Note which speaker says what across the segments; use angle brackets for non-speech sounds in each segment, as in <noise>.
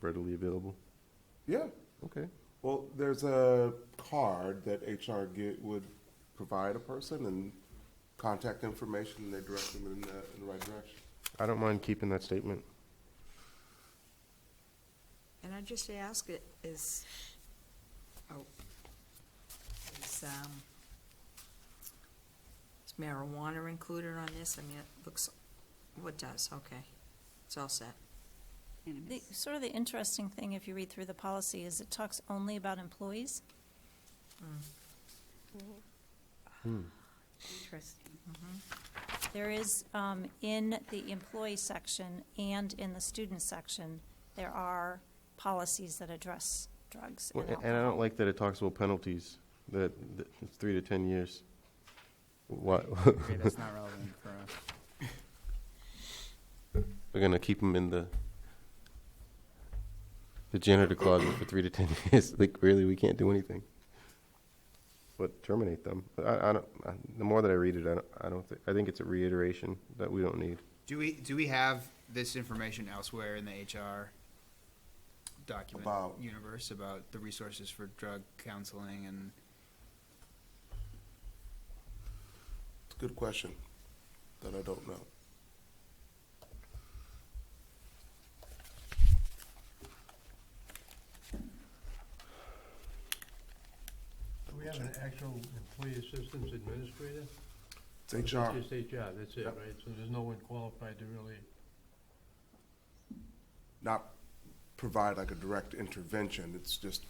Speaker 1: readily available?
Speaker 2: Yeah,
Speaker 1: Okay,
Speaker 2: well, there's a card that HR get, would provide a person and contact information, and they direct them in the, in the right direction.
Speaker 1: I don't mind keeping that statement.
Speaker 3: And I just ask it is, oh, is, um, is marijuana included on this? I mean, it looks, what does, okay, it's all set.
Speaker 4: The, sort of the interesting thing, if you read through the policy, is it talks only about employees.
Speaker 5: Interesting.
Speaker 4: There is, um, in the employee section and in the student section, there are policies that address drugs
Speaker 1: Well,
Speaker 4: and
Speaker 1: a- And I
Speaker 4: alcohol.
Speaker 1: don't like that it talks about penalties, that, that it's three to 10 years. Why,
Speaker 6: Okay, that's not relevant for us.
Speaker 1: <laughs> we're gonna keep them in the, the janitor closet for three to 10 <laughs> years, like, really, we can't do anything. But terminate them, but I, I don't, I- the more that I read it, I don't, I don't, thi- I think it's a reiteration that we don't need.
Speaker 6: Do we, do we have this information elsewhere in the HR document
Speaker 2: About-
Speaker 6: universe about the resources for drug counseling and
Speaker 2: It's a good question that I don't know.
Speaker 7: Do we have an actual employee assistance administrator?
Speaker 2: It's HR.
Speaker 7: It's just HR, that's it,
Speaker 2: Yep.
Speaker 7: right? So there's no one qualified to really,
Speaker 2: not provide like a direct intervention, it's just,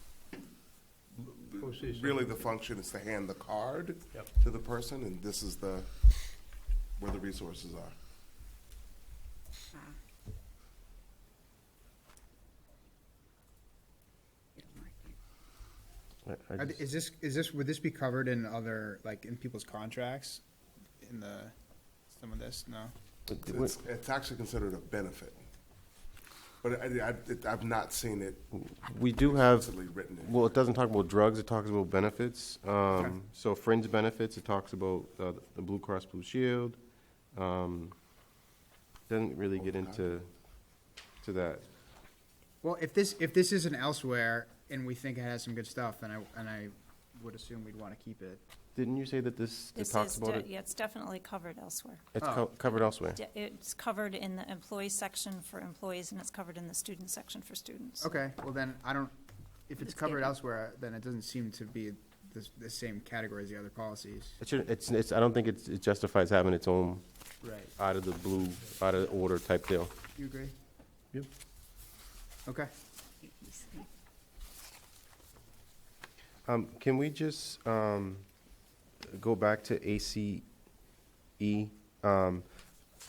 Speaker 7: Go see someone.
Speaker 2: really the function is to hand the card
Speaker 7: Yep.
Speaker 2: to the person, and this is the, where the resources are.
Speaker 5: Ah, You don't like it.
Speaker 1: I- I
Speaker 6: Are th-
Speaker 1: just-
Speaker 6: Is this, is this, would this be covered in other, like, in people's contracts? In the, some of this, no?
Speaker 1: but th-
Speaker 2: It's, it's actually considered a benefit. But I, I, I've not seen it
Speaker 1: We do have,
Speaker 2: explicitly written in.
Speaker 1: well, it doesn't talk about drugs, it talks about benefits. Um, so fringe benefits, it talks about, uh, the Blue Cross Blue Shield. Um, doesn't really get into, to that.
Speaker 6: Well, if this, if this isn't elsewhere and we think it has some good stuff, then I, and I would assume we'd wanna keep it.
Speaker 1: Didn't you say that this, it
Speaker 4: This
Speaker 1: talks
Speaker 4: is,
Speaker 1: about
Speaker 4: de-
Speaker 1: it?
Speaker 4: yeah, it's definitely covered elsewhere.
Speaker 1: It's
Speaker 6: Oh.
Speaker 1: co- covered elsewhere.
Speaker 4: De- It's covered in the employee section for employees and it's covered in the student section for students.
Speaker 6: Okay, well then, I don't, if it's
Speaker 5: It's
Speaker 6: covered
Speaker 5: different.
Speaker 6: elsewhere, then it doesn't seem to be the, the same category as the other policies.
Speaker 1: It should, it's, it's, I don't think it's, it justifies having its own
Speaker 6: Right.
Speaker 1: out of the blue, out of order type deal.
Speaker 6: You agree?
Speaker 1: Yep.
Speaker 6: Okay.
Speaker 5: You- you see.
Speaker 1: Um, can we just, um, go back to ACE? Um,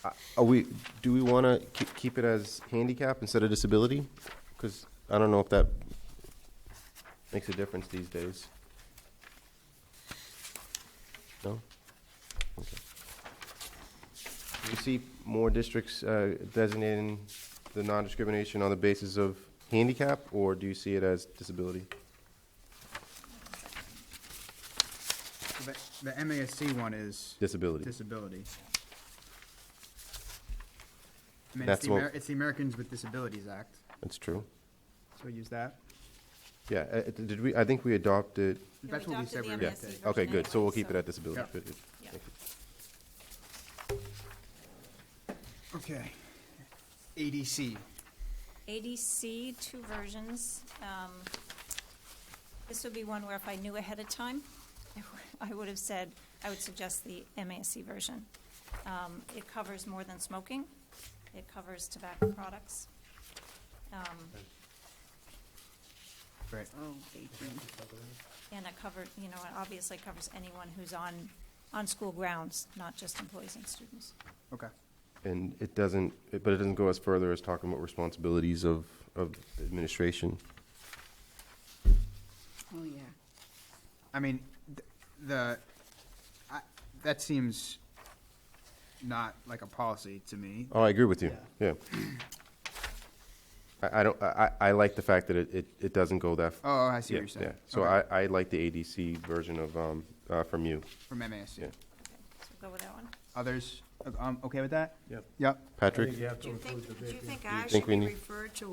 Speaker 1: I- are we, do we wanna keep, keep it as handicap instead of disability? Cause I don't know if that makes a difference these days. No? Okay. You see more districts, uh, designating the non-discrimination on the basis of handicap, or do you see it as disability?
Speaker 6: So The, the MASC one is
Speaker 1: Disability.
Speaker 6: disability. I mean, it's
Speaker 1: That's
Speaker 6: the,
Speaker 1: what-
Speaker 6: Amer- it's the Americans with Disabilities Act,
Speaker 1: That's true.
Speaker 6: so use that.
Speaker 1: Yeah, uh, uh, did we, I think we adopted,
Speaker 4: we
Speaker 6: That's what we
Speaker 4: adopted
Speaker 6: said
Speaker 4: the
Speaker 6: we were
Speaker 1: yeah,
Speaker 6: gonna
Speaker 4: MASC
Speaker 6: take.
Speaker 4: version
Speaker 1: okay, good, so we'll
Speaker 4: anyway,
Speaker 1: keep it
Speaker 4: so-
Speaker 1: at disability.
Speaker 6: Yeah.
Speaker 1: Good, good.
Speaker 4: Yeah.
Speaker 1: Thank you.
Speaker 6: Okay. ADC,
Speaker 4: ADC, two versions. Um, This would be one where if I knew ahead of time, <laughs> I wou- I would have said, I would suggest the MASC version. Um, It covers more than smoking. It covers tobacco products. Um,
Speaker 6: right.
Speaker 5: Oh, baking.
Speaker 4: And it covered, you know, it obviously covers anyone who's on, on school grounds, not just employees and students.
Speaker 6: Okay.
Speaker 1: And it doesn't, it- but it doesn't go as further as talking about responsibilities of, of administration.
Speaker 5: Oh, yeah.
Speaker 6: I mean, th- the, I, that seems not like a policy to me.
Speaker 1: Oh, I agree with you, yeah. I, I don't, I, I I like the fact that it, it, it doesn't go that. f-
Speaker 6: Oh, I see
Speaker 1: yeah,
Speaker 6: what you're saying.
Speaker 1: yeah. So I,
Speaker 6: Okay.
Speaker 1: I like the ADC version of, um, uh, from you.
Speaker 6: From MASC.
Speaker 1: Yeah.
Speaker 4: Okay, So go with that one.
Speaker 6: Others, um, okay with that?
Speaker 7: Yep.
Speaker 6: Yep.
Speaker 7: I think
Speaker 1: Patrick?
Speaker 7: you have
Speaker 3: Do
Speaker 7: to
Speaker 3: you
Speaker 7: include the
Speaker 3: think, do you
Speaker 7: vacant.
Speaker 3: think I
Speaker 1: think
Speaker 3: should
Speaker 1: we
Speaker 3: be
Speaker 1: need-
Speaker 3: referred to